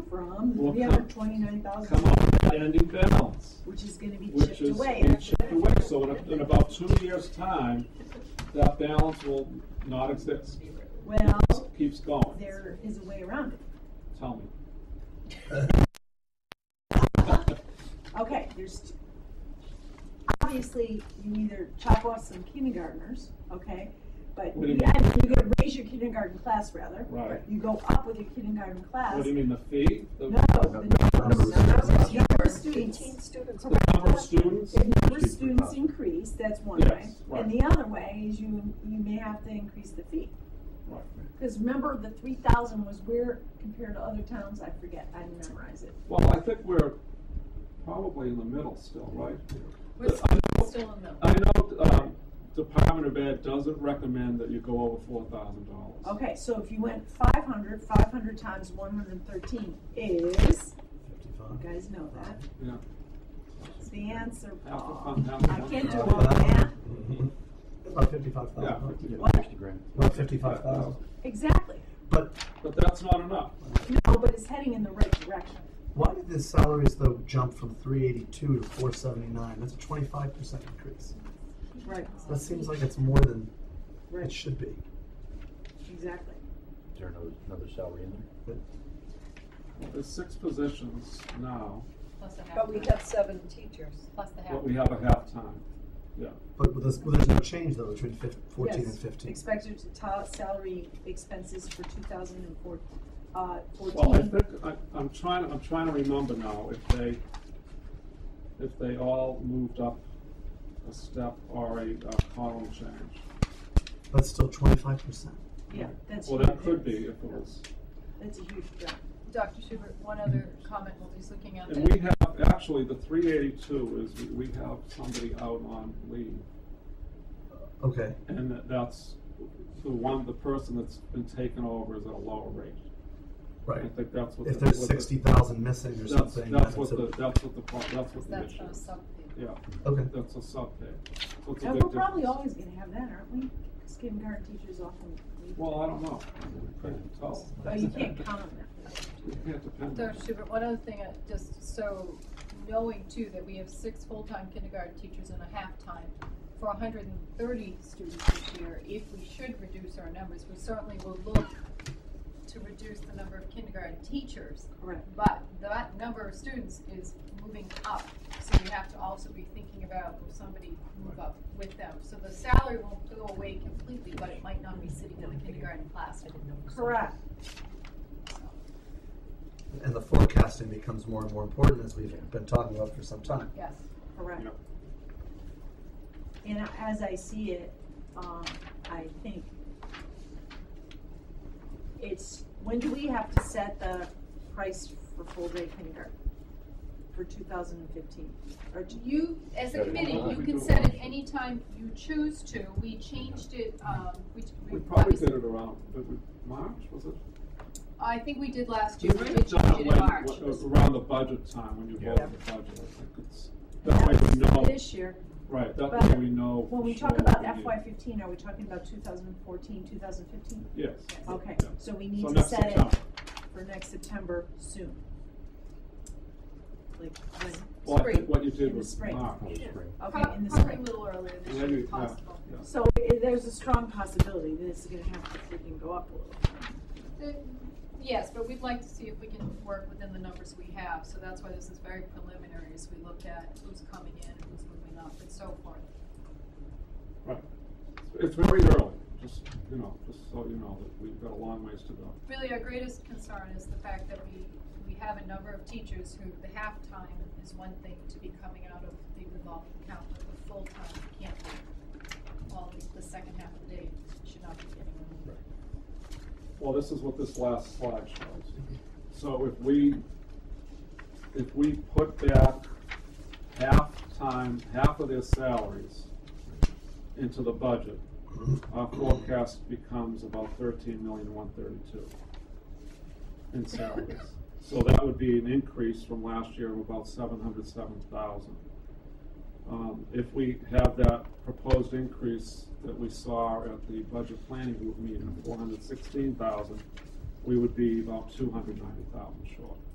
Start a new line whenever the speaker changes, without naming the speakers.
come,
Will
we have a
come-
twenty-nine thousand,
come off that ending balance,
which is gonna be
which
chipped
is
away.
being
after
chipped
that.
away. So in, a- in about two years' time, that balance will not exist.
Well,
Keeps going.
there is a way around it.
Tell me.
Okay, there's, t- obviously, you either chop off some kindergartners, okay? But,
What do you
yeah, I mean, you're gonna raise your kindergarten class rather.
Right.
You go up with your kindergarten class.
What do you mean, the fee? The
No, the number
Numbers.
of number of
Numbers.
students.
Eighteen students.
the number of students?
If number of students increase, that's one
Yes,
way.
right.
And the other way is you, you may have to increase the fee.
Right.
Because remember, the three thousand was where compared to other towns, I forget, I didn't memorize it.
Well, I think we're probably in the middle still, right?
We're still still in the,
I know, um, Department of Ed doesn't recommend that you go over four thousand dollars.
Okay, so if you went 500, 500 times one hundred and thirteen is, you
Fifty-five.
guys know that,
Yeah,
it's the answer,
Half a
Paul.
pound, half a
I
pound.
can't do all that.
Mhm. About fifty-five
yeah,
thousand.
fifty-
What?
About fifty-five thousand.
Exactly.
But
but that's not enough.
No, but it's heading in the right direction.
why did the salaries though jump from three eighty-two to four seventy-nine? That's a twenty-five percent increase.
Right,
That seems like it's more than it
right,
should be.
exactly.
Is there another, another salary in there?
There's six positions now,
plus the half.
But we have seven teachers.
Plus the half.
but we have a half-time, yeah.
But with this, well, there's no change though between fif- fourteen
Yes,
and fifteen.
Expected to ta- salary expenses for two thousand and four, uh,
Well, I
fourteen.
think, I, I'm trying, I'm trying to remember now if they, if they all moved up a step or a uh, column change.
That's still twenty-five percent.
Yeah, that's.
Well,
huge.
that could be if it was,
That's a huge jump.
Dr. Schubert, one other comment while he's looking at
and we
that.
have, actually, the three eighty-two is, we- we have somebody out on leave.
Okay.
And that- that's, the one, the person that's been taken over is at a lower rate. I
Right.
think that's what.
If
the-
there's
what the-
sixty thousand missing or
That's,
something,
that's what
a-
the, that's what the, pro- that's what the
That's
issue
a
is.
sub
Yeah,
Okay.
that's a sub pay. So it's a
And
big
we're probably
difference.
always gonna have that, aren't we? Because kindergarten teachers often leave.
Well, I don't know. I couldn't tell.
Oh, you can't count on that.
You can't depend on
Dr.
it.
Schubert, one other thing, uh, just so knowing too, that we have six full-time kindergarten teachers and a half-time for hundred and thirty students this year, if we should reduce our numbers, we certainly will look to reduce the number of kindergarten teachers.
Correct.
But that number of students is moving up, so you have to also be thinking about will somebody move up with them. So the salary won't go away completely, but it might not be sitting in the kindergarten class.
Correct.
And the forecasting becomes more and more important as we've been talking about for some time.
Yes,
Correct.
Yep.
And as I see it, um, I think it's, when do we have to set the price for full day kindergarten? For two thousand and fifteen, or do you,
you, as a committee, you can set it anytime you choose to. We changed it, um, we,
We
we
probably did
obviously-
it around, but we, March, was it?
I think we did last
We
year,
might
we
have
changed
done
it
when-
in March.
when- Around the budget time, when you
Yeah.
voted the budget, I think it's, that way we know,
this year,
right, that
But
way we know.
when
for
we
sure
talk about
what we
FY
need.
fifteen, are we talking about 2014, 2015?
Yes.
Okay,
Yeah.
so we
So
need to
next
set it
September.
for next September soon. Like, when,
Well, I think
Spring.
what you
In
did
the
was
spring.
March.
Oh, spring.
okay, in the
Probably a
spring.
little earlier this year,
Maybe,
if
yeah,
possible.
yeah.
So i there's a strong possibility that it's gonna have to freaking go up a little.
The- Yes, but we'd like to see if we can work within the numbers we have, so that's why this is very preliminary, as we look at who's coming in, and who's moving up, and so forth.
Right. It's very early, just, you know, just so you know that we've got a long ways to go.
Really, our greatest concern is the fact that we, we have a number of teachers who the half-time is one thing to be coming out of the revolving account, but the full-time can't be. All the, the second half of the day should not be getting removed.
Well, this is what this last slide shows. So if we, if we put back half time, half of their salaries into the budget, our forecast becomes about thirteen million, one thirty-two in salaries. So that would be an increase from last year of about seven hundred seven thousand. Um, if we have that proposed increase that we saw at the budget planning group meeting, four hundred sixteen thousand, we would be about two hundred ninety thousand short.